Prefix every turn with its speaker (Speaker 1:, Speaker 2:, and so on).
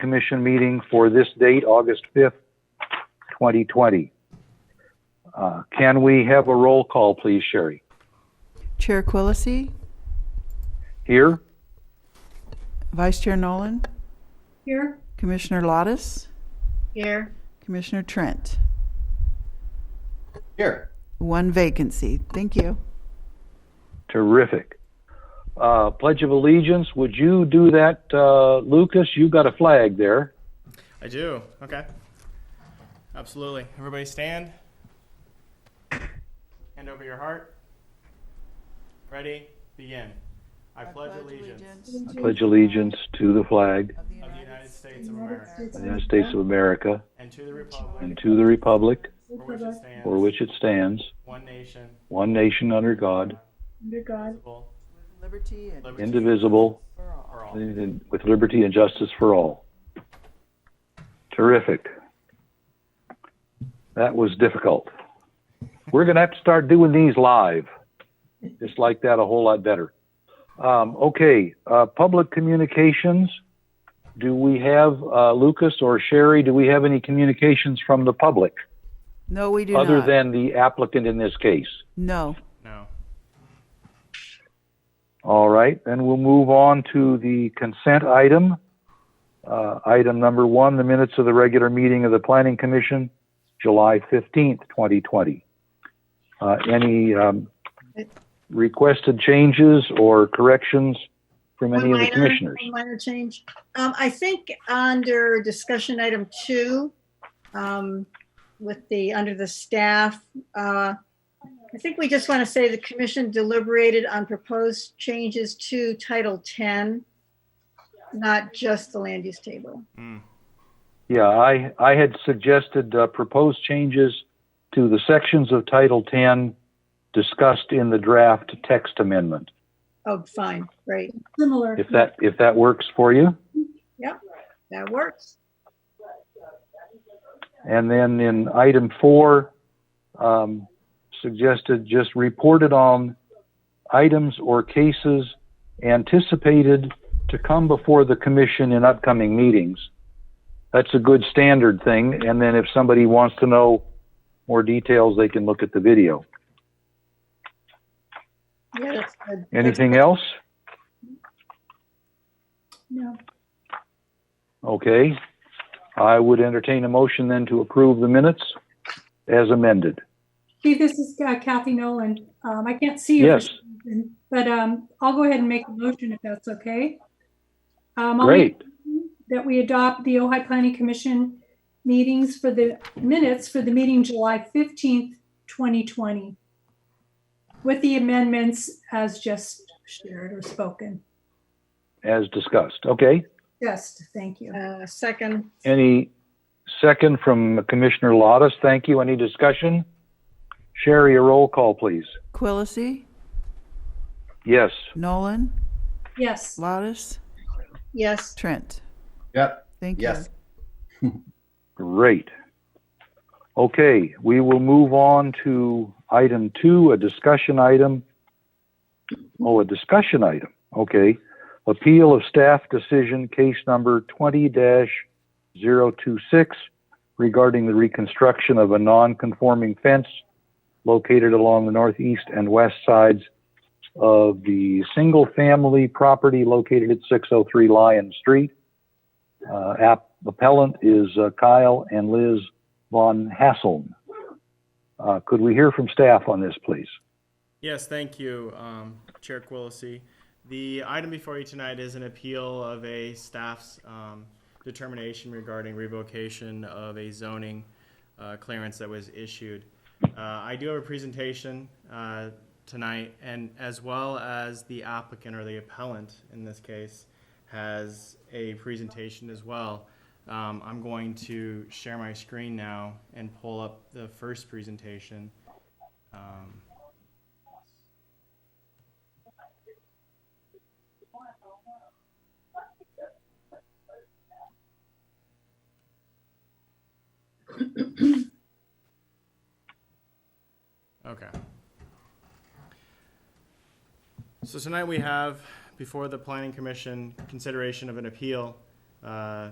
Speaker 1: Commission meeting for this date, August 5th, 2020. Uh, Can we have a roll call, please, Sherry?
Speaker 2: Chair Quillisi,
Speaker 1: Here?
Speaker 2: Vice Chair Nolan,
Speaker 3: Here.
Speaker 2: Commissioner Lottis,
Speaker 3: Here.
Speaker 2: Commissioner Trent.
Speaker 4: Here.
Speaker 2: One vacancy. Thank you.
Speaker 1: Terrific. Uh, Pledge of Allegiance, would you do that, uh, Lucas? You got a flag there.
Speaker 4: I do. Okay. Absolutely. Everybody stand. Hand over your heart. Ready? Begin. I, pledge, allegiance
Speaker 1: I Pledge allegiance to the flag
Speaker 4: of the United States of America
Speaker 1: of the United States of America
Speaker 4: and to the republic
Speaker 1: and to the republic
Speaker 4: for which it stands,
Speaker 1: for which it stands,
Speaker 4: one nation,
Speaker 1: one nation under God,
Speaker 3: Under God.
Speaker 4: indivisible,
Speaker 2: Liberty and
Speaker 4: liberty
Speaker 1: indivisible,
Speaker 2: for all.
Speaker 4: for all.
Speaker 1: with liberty and justice for all. Terrific. That was difficult. We're going to have to start doing these live. Just like that, a whole lot better. Um, okay, uh, public communications. Do we have uh, Lucas or Sherry? Do we have any communications from the public
Speaker 2: No, we do
Speaker 1: other
Speaker 2: not.
Speaker 1: than the applicant in this case?
Speaker 2: No.
Speaker 4: No.
Speaker 1: All right, then we'll move on to the consent item. Uh, Item number one, the minutes of the regular meeting of the Planning Commission, July 15th, 2020. Uh, Any um, requested changes or corrections from any of the commissioners?
Speaker 3: One minor change. Um, I think under discussion item two, um, with the, under the staff, uh, I think we just want to say the commission deliberated on proposed changes to Title 10, not just the land use table.
Speaker 4: Mm.
Speaker 1: Yeah, I, I had suggested uh, proposed changes to the sections of Title 10 discussed in the draft text amendment,
Speaker 3: Oh, fine, great,
Speaker 5: Similar.
Speaker 1: if that, if that works for you.
Speaker 3: that works.
Speaker 1: And then in item four, um, suggested just reported on items or cases anticipated to come before the commission in upcoming meetings. That's a good standard thing. And then if somebody wants to know more details, they can look at the video.
Speaker 3: Yeah, that's good.
Speaker 1: Anything else?
Speaker 3: No.
Speaker 1: Okay. I would entertain a motion then to approve the minutes as amended.
Speaker 5: Chief, this is uh, Kathy Nolan. Um, I can't see you.
Speaker 1: Yes.
Speaker 5: But, um, I'll go ahead and make a motion if that's okay. Um, I'll make
Speaker 1: Great.
Speaker 5: That we adopt the Ojai Planning Commission meetings for the minutes for the meeting July fifteenth, twenty twenty. With the amendments as just shared or spoken.
Speaker 1: As discussed. Okay.
Speaker 5: Just, thank you.
Speaker 3: Uh, second,
Speaker 1: Any second from Commissioner Lottis? Thank you. Any discussion? Sherry, a roll call, please.
Speaker 2: Quillisi,
Speaker 1: Yes.
Speaker 2: Nolan,
Speaker 5: Yes,
Speaker 2: Lottis,
Speaker 3: yes,
Speaker 2: Trent.
Speaker 4: Yep.
Speaker 2: Thank you.
Speaker 4: Yes.
Speaker 1: Great. Okay, we will move on to item two, a discussion item. Oh, a discussion item. Okay. Appeal of staff decision case number 20 026 regarding the reconstruction of a non-conforming fence located along the northeast and west sides of the single-family property located at 603 Lion Street. Uh, app appellant is uh, Kyle and Liz von Hasseln. Uh, could we hear from staff on this, please?
Speaker 4: Yes, thank you, um, Chair Quillisi. The item before you tonight is an appeal of a staff's um, determination regarding revocation of a zoning uh, clearance that was issued. Uh, I do have a presentation uh, tonight, and as well as the applicant or the appellant in this case has a presentation as well. Um, I'm going to share my screen now and pull up the first presentation. Um, Okay. So tonight we have before the planning commission consideration of an appeal uh,